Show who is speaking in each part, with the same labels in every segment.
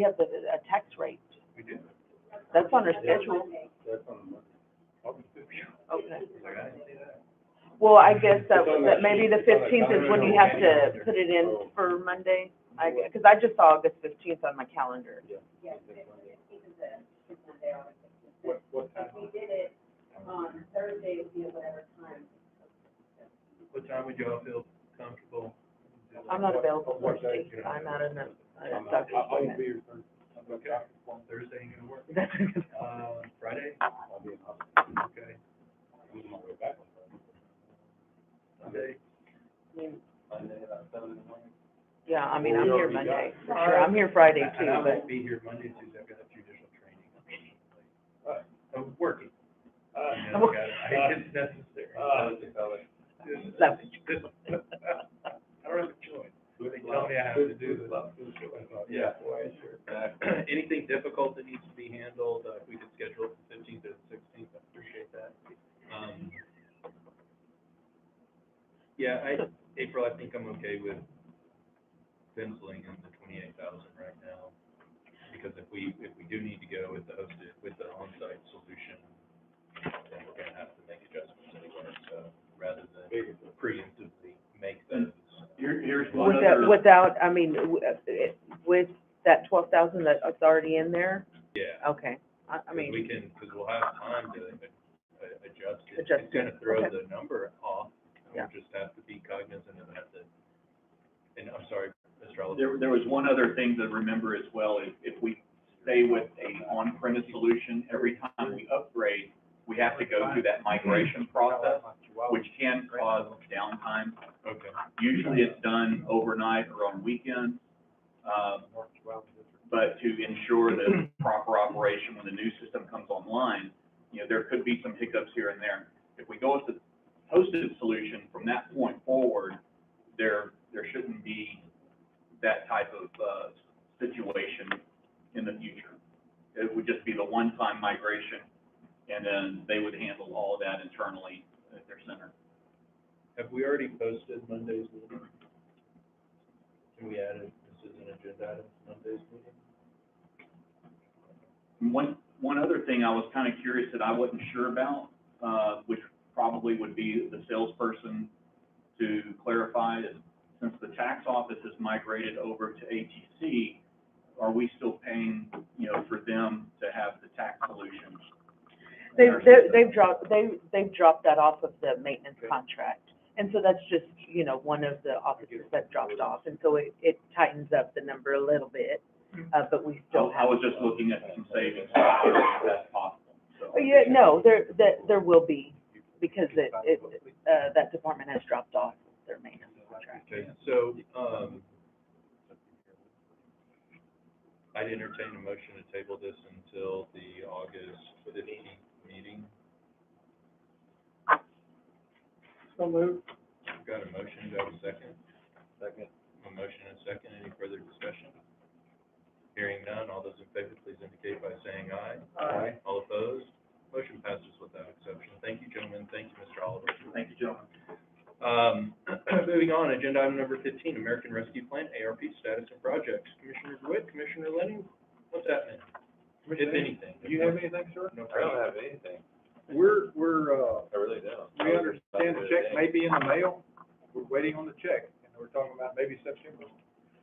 Speaker 1: we have the, a tax rate.
Speaker 2: We do.
Speaker 1: That's on our schedule.
Speaker 2: That's on August fifteenth.
Speaker 1: Okay. Well, I guess that,
Speaker 2: It's on
Speaker 1: that
Speaker 2: the-
Speaker 1: maybe the
Speaker 2: it's on the
Speaker 1: fifteenth is when you
Speaker 2: calendar.
Speaker 1: have to put it in for Monday. I, because I just saw August fifteenth on my calendar.
Speaker 2: What, what time? What time would y'all feel comfortable?
Speaker 1: I'm not available
Speaker 2: What day,
Speaker 1: Thursday.
Speaker 2: you know?
Speaker 1: I'm out in the,
Speaker 2: I'm
Speaker 1: I'm
Speaker 2: not-
Speaker 1: doctor's
Speaker 2: I- I won't
Speaker 1: appointment.
Speaker 2: be here Thursday. I'm not doctor's appointment. Thursday ain't gonna work. Uh, Friday? I'll be in hospital. Okay. I'm on my way back. Sunday? Monday, uh, seven in the morning.
Speaker 1: Yeah, I mean,
Speaker 2: Well,
Speaker 1: I'm
Speaker 2: we
Speaker 1: here
Speaker 2: already got
Speaker 1: Monday,
Speaker 2: it.
Speaker 1: for sure. I'm here Friday
Speaker 2: And-
Speaker 1: too,
Speaker 2: And I
Speaker 1: but,
Speaker 2: won't be here Monday, Tuesday, I've got a judicial training. Uh, I'm working. Uh, uh, yeah, I got it. I- It's necessary. This-
Speaker 1: so,
Speaker 2: this- I don't have a choice. They tell me I have to do this. Yeah. Uh, Anything difficult that needs to be handled, uh, if we could schedule it the fifteenth or the sixteenth, I appreciate that. Um, Yeah, I, April, I think I'm okay with penciling in the twenty-eight thousand right now. Because if we, if we do need to go with the hosted, with the on-site solution, then we're gonna have to make adjustments anyway, so rather than preemptively make those.
Speaker 3: Here, here's one
Speaker 1: without,
Speaker 3: other,
Speaker 1: without, I mean, w- uh, it- with that twelve thousand that's already in there,
Speaker 2: Yeah.
Speaker 1: okay. I, I
Speaker 2: 'cause
Speaker 1: mean,
Speaker 2: We can, because we'll have time to uh, adjust it.
Speaker 1: Adjust
Speaker 2: It's gonna
Speaker 1: it,
Speaker 2: throw
Speaker 1: okay.
Speaker 2: the number off, and
Speaker 1: Yeah.
Speaker 2: we'll just have to be cognizant of that, that, and I'm sorry, Mr. Oliver.
Speaker 3: there, there was one other thing to remember as well, is if we stay with a on-premise solution, every time we upgrade, we have to go through that migration process, which can cause downtime.
Speaker 2: Okay.
Speaker 3: Usually it's done overnight or on weekends, um, but to ensure the proper operation when the new system comes online, you know, there could be some hiccups here and there. If we go with the hosted solution from that point forward, there, there shouldn't be that type of, uh, situation in the future. It would just be the one-time migration, and then they would handle all of that internally at their center.
Speaker 2: Have we already posted Monday's meeting? Can we add it, this is an agenda item, Monday's meeting?
Speaker 3: And One, one other thing I was kind of curious that I wasn't sure about, uh, which probably would be the salesperson to clarify, is since the tax office has migrated over to ATC, are we still paying, you know, for them to have the tax solutions?
Speaker 1: they, they- they've dropped, they, they've dropped that off of the maintenance
Speaker 2: Okay.
Speaker 1: contract. And so that's just, you know, one of the offices that dropped off, and so it, it tightens up the number a little bit, uh, but we
Speaker 3: So
Speaker 1: still
Speaker 3: I
Speaker 1: have.
Speaker 3: was just looking at some savings, if that's possible, so.
Speaker 1: Oh, Yeah, no, there, that, there will be, because it, it, uh, that department has dropped off their maintenance contract.
Speaker 2: Okay, so, um, I'd entertain a motion to table this until the August fifteenth meeting. So moved. Got a motion, do I have a second? Second. A motion and a second, any further discussion? Hearing none, all those in favor, please indicate by saying aye. Aye. All opposed? Motion passes without exception. Thank you, gentlemen, thank you, Mr. Oliver.
Speaker 3: Thank you, gentlemen.
Speaker 2: Um, moving on, agenda item number fifteen, American Rescue Plan, ARP status and projects. Commissioner DeWitt, Commissioner Lenning, what's happening? If anything.
Speaker 4: Do you have anything, sir?
Speaker 2: No problem.
Speaker 4: have anything. We're, we're, uh,
Speaker 2: I really don't.
Speaker 4: we understand the check may be in the mail. We're waiting on the check, and we're talking about maybe September.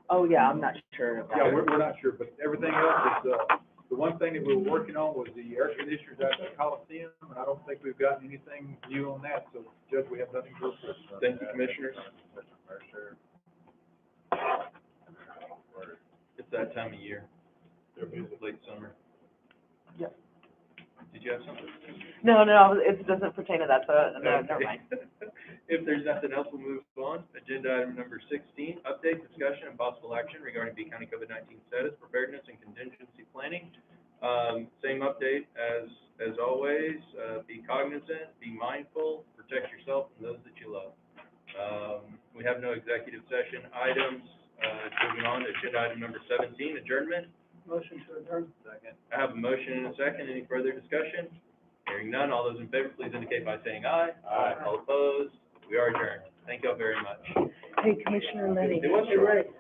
Speaker 1: Oh, yeah, I'm not sure about
Speaker 4: Yeah, we're, we're not sure, but everything else is, uh, the one thing that we were working on was the air conditioners out at the Coliseum, and I don't think we've gotten anything new on that, so Judge, we have nothing to report.
Speaker 2: Thank you, Commissioners. It's that time of year. Late summer.
Speaker 1: Yep.
Speaker 2: Did you have something?
Speaker 1: No, no, it doesn't pertain to that, so, no, uh, never
Speaker 2: Okay.
Speaker 1: mind.
Speaker 2: If there's nothing else, we'll move on. Agenda item number sixteen, update, discussion, and possible action regarding B County COVID nineteen status, preparedness, and contingency planning. Um, same update as, as always, uh, be cognizant, be mindful, protect yourself and those that you love. Um, we have no executive session items. Uh, moving on, agenda item number seventeen, adjournment.
Speaker 4: Motion to adjourn. Second.
Speaker 2: I have a motion and a second. Any further discussion? Hearing none, all those in favor, please indicate by saying aye.
Speaker 4: Aye.
Speaker 2: All opposed, we are adjourned. Thank you all very much.
Speaker 1: Hey, Commissioner Lenny.
Speaker 2: It was your right.